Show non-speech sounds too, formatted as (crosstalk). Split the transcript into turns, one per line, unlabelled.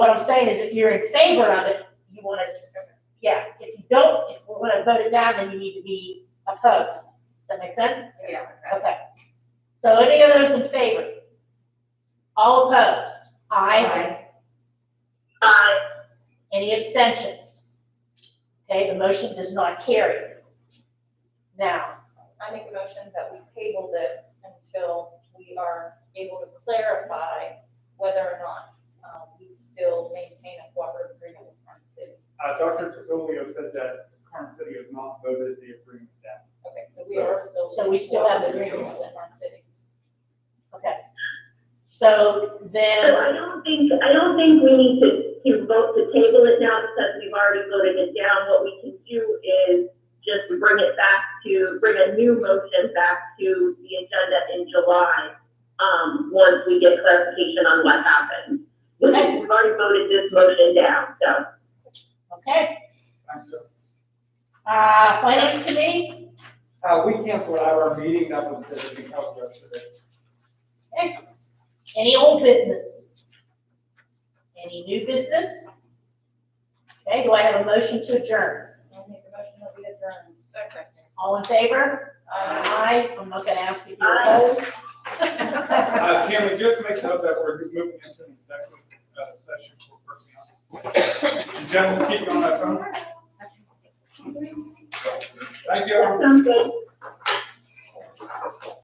What I'm saying is if you're in favor of it, you want to, yeah, if you don't, if we want to vote it down, then you need to be opposed. Does that make sense?
Yeah.
Okay. So any of those in favor? All opposed? Aye. Aye. Any abstentions? Okay, the motion does not carry. Now,
I make a motion that we table this until we are able to clarify whether or not um, we still maintain a cooperative agreement with Karn City.
Uh, Dr. Tefilio said that Karn City has not voted the agreement down.
Okay, so we are still.
So we still have the
cooperative
agreement.
With Karn City.
so
So
then,
I don't think, I don't think we need to, to vote to table it now because we've already voted it down. What we can do is just bring it back to, bring a new motion back to the agenda in July, um, once we get clarification on what happened. We've
Okay.
we've already voted this motion down, so.
okay,
Thanks, sir.
uh, finance committee?
Uh, we canceled our meeting, that was just because of us today.
Okay. Any old business? Any new business? Okay, do I have a motion to adjourn?
I'll make a motion that we adjourn. Second.
All in favor? Aye. I'm not gonna ask if you're opposed. (laughs)
Uh, can we just make note that we're moving into an executive uh, session for personnel? Gentlemen, keep you on that phone. Thank you.
That sounds good.